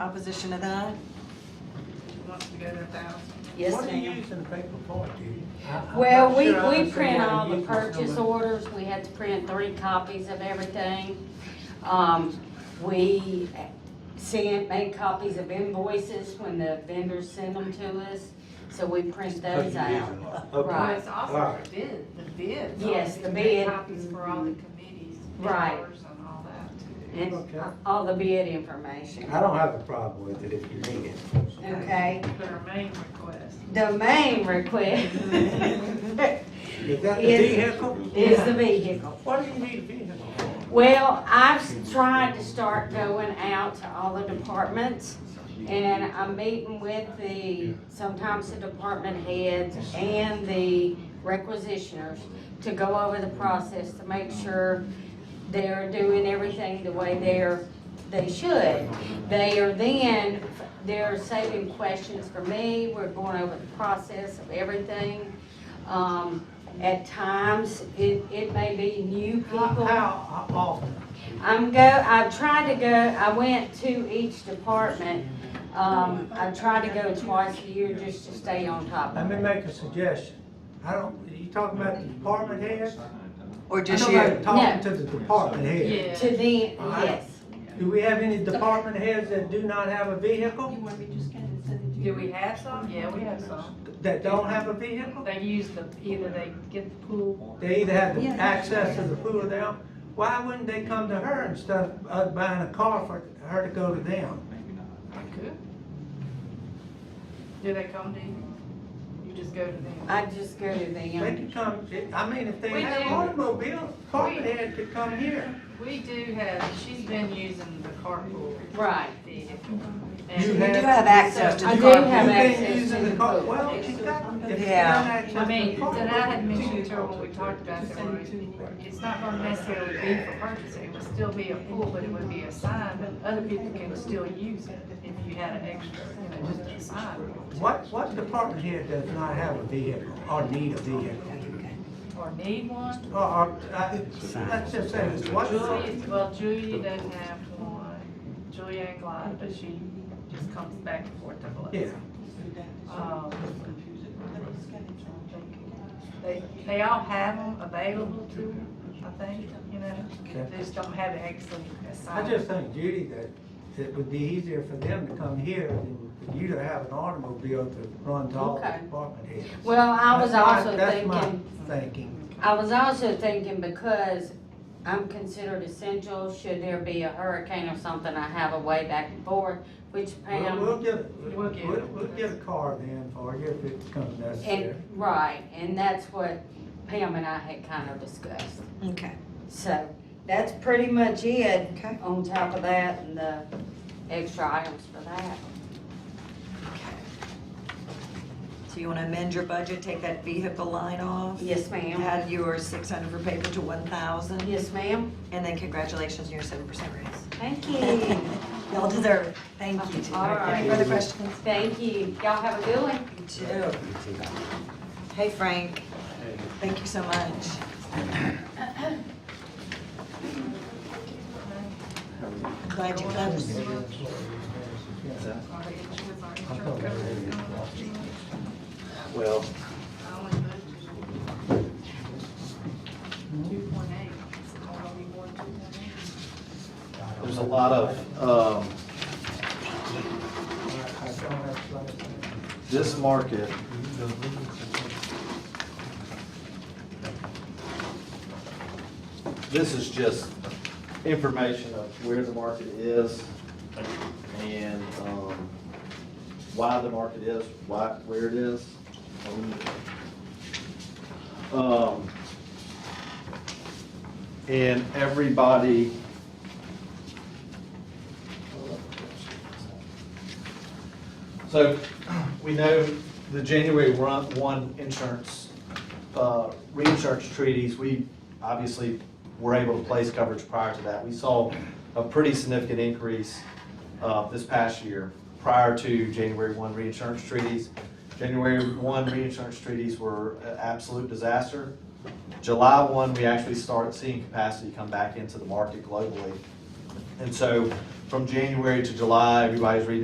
Opposition to that? wants to go to a thousand. Yes, What do you ma'am. use in the paper for, Judy? I- I'm Well, not we, sure I we understand print how to all the use this purchase number. orders, we had to print three copies of everything. Um, we sent, made copies of invoices when the vendors send them to us, so we print those out. Well, Right. Okay, it's also Alright. the bid, the bids. Yes, all the these bid. Copies for all the committees. Right. members And all that too. And all the bid information, I don't have a problem with it if you need it. okay? Their main request. The main request Is that the Yes. vehicle? is the vehicle. What do you need a vehicle for? Well, I've tried to start going out to all the departments, and I'm meeting with the, sometimes the department heads and the requisitioners to go over the process to make sure they're doing everything the way they're, they should. They are then, they're saving questions for me, we're going over the process of everything. Um, at times, it, it may be new How, people. how often? I'm go, I tried to go, I went to each department. Um, I tried to go twice a year just to stay on top Let of me it. make a suggestion. I don't, you talking about the department heads? Or I just don't like you? Talking to the department heads. To the, yes. Do we have any department heads that do not have a vehicle, Do we have some? Yeah, we have some. that don't have a vehicle? They use the, either they get the pool. They either have the access to the pool or they don't. Why wouldn't they come to her instead of us buying a car for her to go to them? Good. Do they come to you? You just go to them? I just go to They them. could come, I mean, if they We have do. automobiles, department heads could come here. We do have, she's been using the carpool Right. vehicle. You You do And- have access to the I do carpool. have You can't access use to it the car- pool. Well, if you got, if you got Yeah. access I to mean, the that car. I had mentioned to her when we talked about that, where it's not gonna necessarily be for purchasing, it would still be a pool, but it would be a sign, but other people can still use it if you had an extra, you know, just a sign What, what department here does not have a vehicle or need a vehicle? or need one. Or, or, uh, let's just say, what, Julie, well, Julia doesn't have one, Julia ain't glad, but she just comes back and forth to yeah, Biloxi. Um, They, they all have them available to them, I think, you know, they just don't have an excellent I just think Judy, that it would be easier for them to come here than for you to have an automobile to run to all the Okay. department heads. Well, I was That's my- also that's my thinking, Thinking, I was also thinking because I'm considered essential, should there be a hurricane or something, I have a way back and forth, which we'll, Pam. we'll get, We'll we'll, get- we'll get a car then for you if it becomes necessary. And, right, and that's what Pam and I had kind of discussed. Okay, So that's pretty much it. Okay. On top of that and the extra items for that. so you want to amend your budget, take that vehicle line off? Yes, ma'am. Add your 600 for paper to 1,000, Yes, ma'am. and then congratulations on your 7% raise. Thank you. Y'all deserve it. Thank you. Tina. All right. Any further questions? Thank you. Y'all have a good one. You too. Hey, Frank. Thank you so much. Glad you closed. Well, Two point eight, it's only one two point eight. there's a lot of, um, I- I don't have like- this market. This is just information of where the market is and, um, why the market is, why, where it is. Um, And everybody. So we know the January run- 1 insurance, uh, reinsurance treaties, we obviously were able to place coverage prior to that. We saw a pretty significant increase uh, this past year prior to January 1 reinsurance treaties. January 1 reinsurance treaties were an absolute disaster. July 1, we actually started seeing capacity come back into the market globally. And so from January to July, everybody's reading